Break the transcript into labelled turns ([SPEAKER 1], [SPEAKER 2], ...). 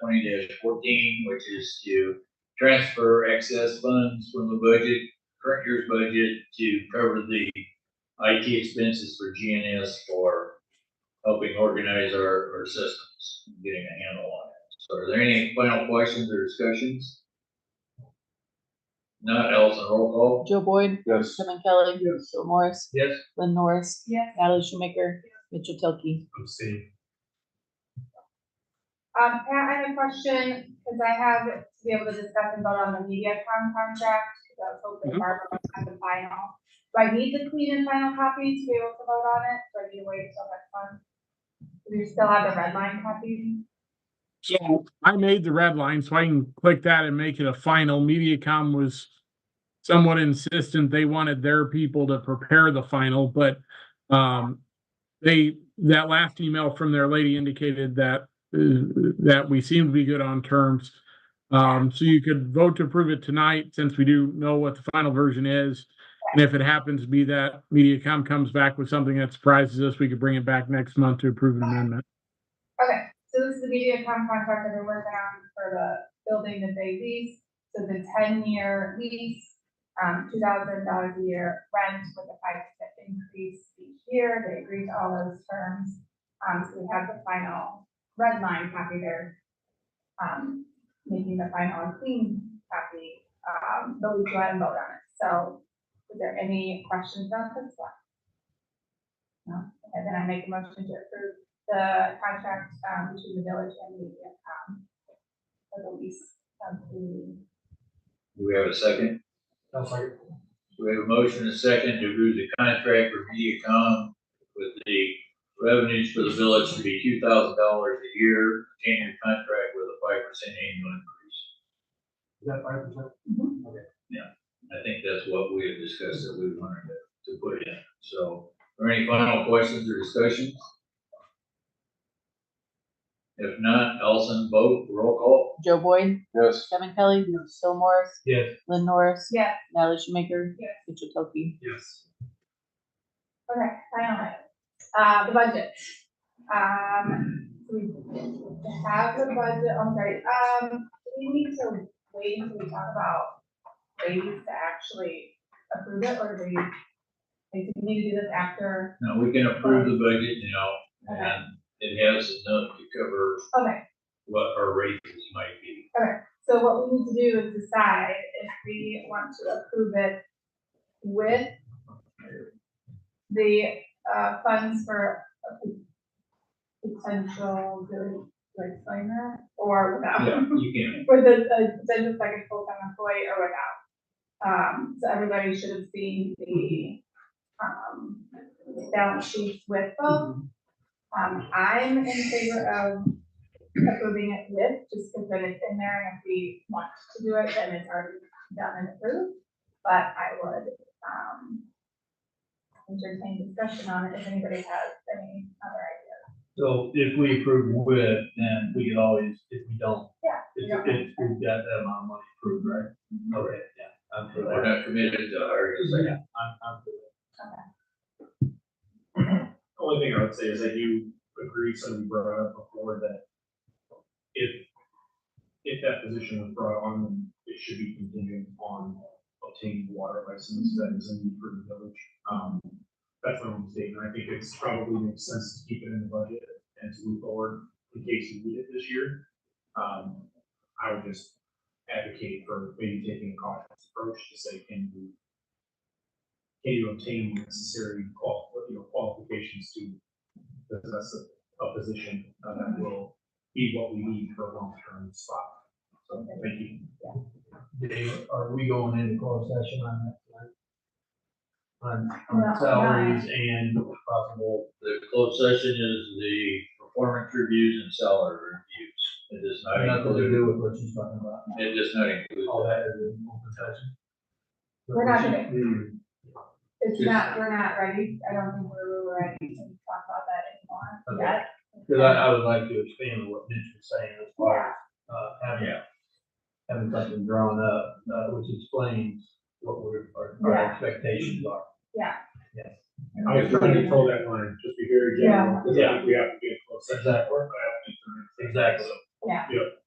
[SPEAKER 1] twenty fourteen, which is to transfer excess funds from the budget, current year's budget, to cover the IT expenses for GNS for helping organize our, our systems, getting a handle on it. So are there any final questions or discussions? Not else, a roll call?
[SPEAKER 2] Joe Boyd,
[SPEAKER 3] Yes.
[SPEAKER 2] Sherman Kelly, Phil Morris,
[SPEAKER 1] Yes.
[SPEAKER 2] Lynn Norris,
[SPEAKER 4] Yes.
[SPEAKER 2] Natalie Schumaker, Mitchell Tilke.
[SPEAKER 4] Um, Pat, I have a question, because I have to be able to discuss and vote on the MediaCom contract, because I was hoping Barbara would have the final. Do I need the clean and final copy to be able to vote on it, or do you wait until next month? Do you still have the red line copy?
[SPEAKER 5] So I made the red line, so I can click that and make it a final. MediaCom was somewhat insistent. They wanted their people to prepare the final, but um, they, that last email from their lady indicated that uh, that we seem to be good on terms. Um, so you could vote to approve it tonight, since we do know what the final version is. And if it happens to be that MediaCom comes back with something that surprises us, we could bring it back next month to approve an amendment.
[SPEAKER 4] Okay, so this is the MediaCom contract that they're working on for the building that they lease, so the ten-year lease, um, two thousand dollars a year rent with a five percent increase each year, they agreed to all those terms. Um, so we have the final red line copy there, um, making the final and clean copy, um, but we go ahead and vote on it, so is there any questions on this one? No, and then I make a motion to approve the contract, um, between the village and the, um, for the lease of the,
[SPEAKER 1] Do we have a second? We have a motion and a second to approve the contract for MediaCom with the revenues for the village to be two thousand dollars a year, ten-year contract with a five percent annual increase. I think that's what we have discussed that we wanted to, to put in. So, are any final questions or discussions? If not, Allison, vote, roll call.
[SPEAKER 2] Joe Boyd,
[SPEAKER 3] Yes.
[SPEAKER 2] Sherman Kelly, Phil Morris,
[SPEAKER 1] Yes.
[SPEAKER 2] Lynn Norris,
[SPEAKER 4] yeah,
[SPEAKER 2] Natalie Schumaker,
[SPEAKER 4] Yes.
[SPEAKER 2] Mitchell Tilke.
[SPEAKER 1] Yes.
[SPEAKER 4] okay, final item. Uh, the budget. Um, we have the budget, I'm sorry, um, do we need to wait until we talk about ways to actually approve it, or do we, like, do we need to do this after?
[SPEAKER 1] Now, we can approve the budget now,
[SPEAKER 4] Okay,
[SPEAKER 1] and it has enough to cover
[SPEAKER 4] okay,
[SPEAKER 1] what our raises might be.
[SPEAKER 4] So what we need to do is decide if we want to approve it with the, uh, funds for a potential, do I explain that, or
[SPEAKER 1] Yeah,
[SPEAKER 4] without?
[SPEAKER 1] you can.
[SPEAKER 4] With the, uh, the potential second full-time employee or without. Um, so everybody should have seen the, um, balance sheets with both. Um, I'm in favor of approving it with, just because then it's in there, and if we want to do it, then it's already done and approved. But I would, um, entertain discussion on it if anybody has any other ideas.
[SPEAKER 6] So if we approve with, then we can always, if we don't.
[SPEAKER 4] Yeah, Mm-hmm. we don't
[SPEAKER 6] If,
[SPEAKER 4] have
[SPEAKER 6] if we've got that amount of money approved, right? Okay, yeah. I'm for
[SPEAKER 1] We're
[SPEAKER 6] that.
[SPEAKER 1] not committed to our,
[SPEAKER 6] Yeah, I'm, I'm for that. Only thing I would say is I do agree, somebody brought up before that if, if that position was brought on, then it should be contingent on obtaining water license that is in for the village. Um, that's my own statement. I think it's probably makes sense to keep it in the budget and to move forward in case we need it this year. Um, I would just advocate for maybe taking a cautious approach to say, can you can you obtain the necessary qual, you know, qualifications to possess a, a position uh, that will be what we need for a long-term spot? So, thank you.
[SPEAKER 7] Dave, are we going into closed session on that? tonight? On,
[SPEAKER 4] Well,
[SPEAKER 7] on salaries and possible,
[SPEAKER 1] the closed session is the performance reviews and salary reviews. It does not
[SPEAKER 7] nothing to
[SPEAKER 1] include,
[SPEAKER 7] do with what she's talking about,
[SPEAKER 1] it does not include.
[SPEAKER 7] all that is in open session.
[SPEAKER 4] We're not gonna-
[SPEAKER 7] Hmm,
[SPEAKER 4] It's
[SPEAKER 1] Yes.
[SPEAKER 4] not, we're not ready, I don't think we're ready to talk about that anymore
[SPEAKER 7] Okay.
[SPEAKER 4] yet.
[SPEAKER 7] Cause I, I would like to expand on what Mitch was saying as far
[SPEAKER 4] Yeah,
[SPEAKER 7] as, uh, having, having something drawn up, uh, which explains what we're, our- our
[SPEAKER 4] Yeah.
[SPEAKER 7] expectations are.
[SPEAKER 4] yeah,
[SPEAKER 7] Yes.
[SPEAKER 6] I was trying to control that line, just be very general, because I think we have to be in close session,
[SPEAKER 7] Exactly.
[SPEAKER 6] but I don't think.
[SPEAKER 7] Exactly.
[SPEAKER 4] yeah.
[SPEAKER 6] Yep.